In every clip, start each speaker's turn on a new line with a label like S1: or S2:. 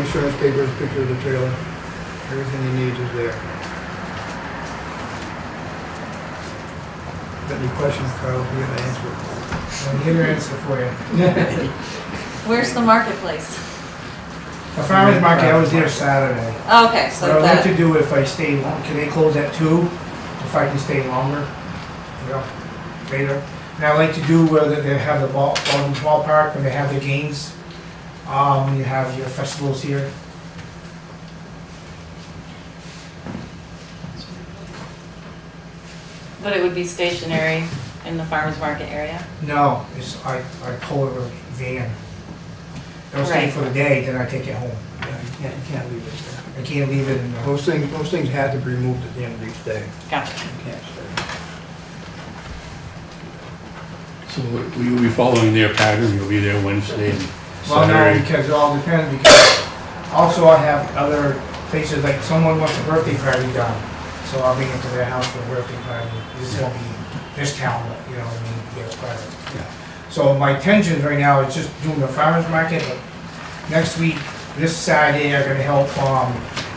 S1: insurance papers, picture of the trailer, everything he needs is there. Got any questions, Carl, we have an answer.
S2: I'm here to answer for you.
S3: Where's the marketplace?
S2: The farmer's market, I was there Saturday.
S3: Okay, so
S2: What I'd like to
S3: that,
S2: do if I stay, long- can they close at two? If I can stay longer, you know, later. And I'd like to do where they they have the ball, ball- ballpark, when they have the games, um, when you have your festivals here.
S3: but it would be stationary in the farmer's market area?
S2: No, it's, I, I pull it with a van. I'll stay
S3: Right.
S2: for the day, then I take it home.
S1: Yeah, You can't, you can't leave it there.
S2: I can't leave it in the,
S1: Most things, most things have to be removed at the end of each day,
S3: Gotcha.
S1: you can't stay.
S4: So you'll be following their pattern, you'll be there Wednesday and
S2: Well, no,
S4: Saturday.
S2: because it all depends, because also I have other places, like someone wants a birthday party done, so I'll be into their house for a birthday party. This will be this town, but, you know, what I mean, their party.
S4: Yeah.
S2: So my intentions right now is just doing the farmer's market, but next week, this Saturday, I'm gonna help, um,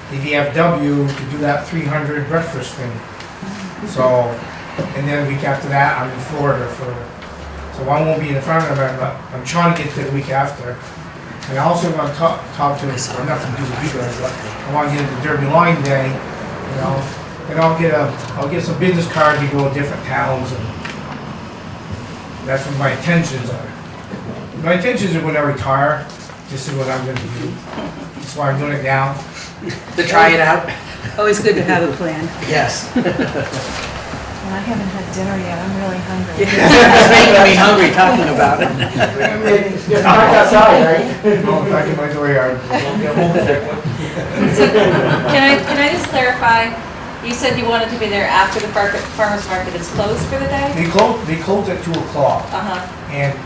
S2: the VFW to do that three hundred breakfast thing. So, and then week after that, I'm in Florida for, so I won't be in the farmer's market, but I'm trying to get to the week after. And I also want to talk, talk to, or nothing to do with you guys, but I want to get the Derby Line Day, you know, and I'll get a, I'll get some business cards to go to different towns and that's what my intentions are. My intentions are when I retire, this is what I'm gonna do. That's why I'm doing it now.
S5: To try it out?
S6: Always good to have a plan.
S5: Yes.
S3: Well, I haven't had dinner yet, I'm really hungry.
S5: It's making me hungry talking about it.
S2: Well, back in my dooryard.
S3: So, Can I, can I just clarify? You said you wanted to be there after the farmer- farmer's market is closed for the day?
S2: They close, they close at two o'clock
S3: Uh-huh,
S2: and,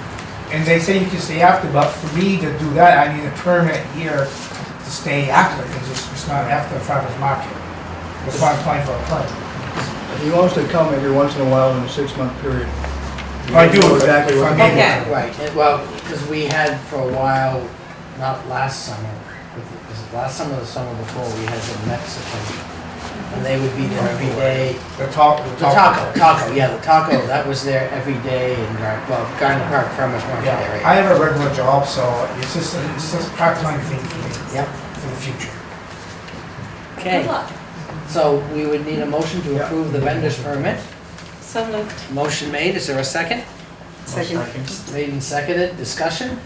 S2: and they say you can stay after, but for me to do that, I need a permit here to stay after, because it's, it's not after farmer's market. That's why I'm applying for a permit.
S1: He wants to come every once in a while in a six-month period.
S2: I do,
S1: You know
S2: if-
S1: Exactly
S2: if
S1: what.
S2: I'm
S1: he
S2: able
S1: wants.
S3: Okay.
S2: to.
S5: Right, it- well, because we had for a while, not last summer, but the- was it last summer or the summer before, we had the Mexican. And they would be there every day.
S2: The talk, the
S5: The
S2: talk.
S5: taco, taco, yeah, the taco, that was there every day in, Gar- well, Garden Park Farmers Market
S2: Yeah, I
S5: area.
S2: have a regular job, so it's just, a- it's just a part-time thing for me,
S5: Yep,
S2: for the future.
S3: good
S5: okay.
S3: luck.
S5: So we would need a motion to
S2: Yeah.
S5: approve the vendor's permit.
S3: So moved.
S5: Motion made, is there a second?
S6: Second.
S5: Made and seconded, discussion?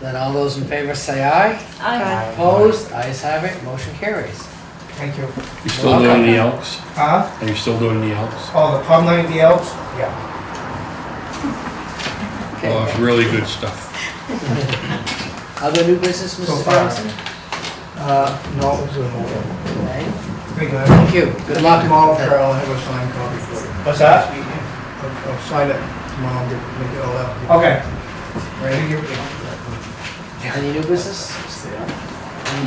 S5: Then all those in favor say aye.
S3: Aye.
S5: Opposed, ayes have it, motion carries.
S2: Thank you.
S4: You still doing the Elks?
S2: Huh?
S4: Are you still doing the Elks?
S2: Oh, the pub night at the Elks? Yeah.
S4: Oh,
S5: Okay.
S4: it's really good stuff.
S5: Other new business,
S2: So
S5: Mrs.
S2: far.
S5: Johnson?
S1: Uh, no, it was a no.
S5: Right.
S2: Pretty good.
S5: Thank you, good luck.
S1: Tomorrow, Carol, I'll have a signed copy for you.
S2: What's that?
S1: I'll, I'll sign it tomorrow, get, make it all out.
S2: Okay.
S5: Right. Any new business? Any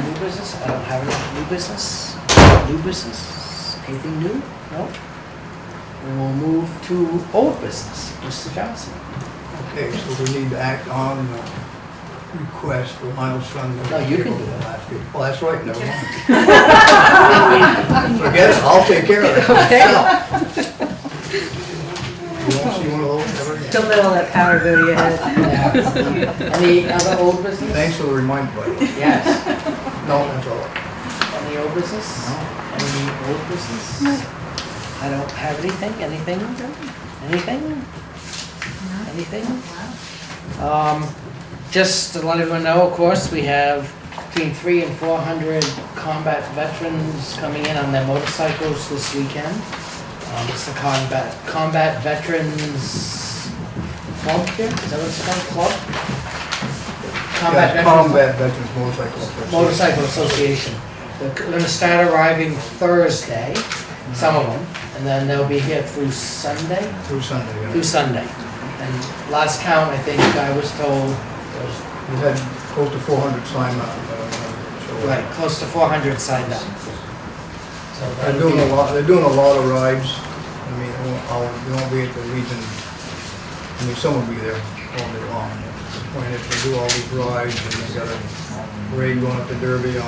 S5: new business? I don't have any new business. New business? Anything new? No? And we'll move to old business, Mr. Johnson.
S1: Okay, so we need to act on the request for Lionel's Fund.
S5: No, you can do it.
S1: Last week. Well, that's right, never mind. Forget it, I'll take care of it.
S5: Okay.
S1: You won't see one of those ever again.
S6: Don't let all that power go to your head.
S5: Any other old business?
S1: Thanks for the reminder, buddy.
S5: Yes.
S1: No, that's all.
S5: Any old business? Any old business? I don't have anything, anything, anything? Anything? Um, just to let everyone know, of course, we have between three and four hundred combat veterans coming in on their motorcycles this weekend. Um, it's the combat, combat veterans club here, is that what it's called, club? Combat
S1: Yeah,
S5: veterans
S1: Combat Veterans Motorcycle. Association.
S5: Motorcycle Association. They're gonna start arriving Thursday, some of them, and then they'll be here through Sunday,
S1: Through Sunday, yeah.
S5: through Sunday. And last count, I think I was told, was
S1: We had close to four hundred sign up. uh, so-
S5: right, close to four hundred signed up. So
S1: They're
S5: that'll
S1: doing a
S5: be,
S1: lot, they're doing a lot of rides. I mean, they won't, I'll- they won't be at the region, I mean, someone will be there all day long. disappointed if they do all these rides and they got a parade going up to Derby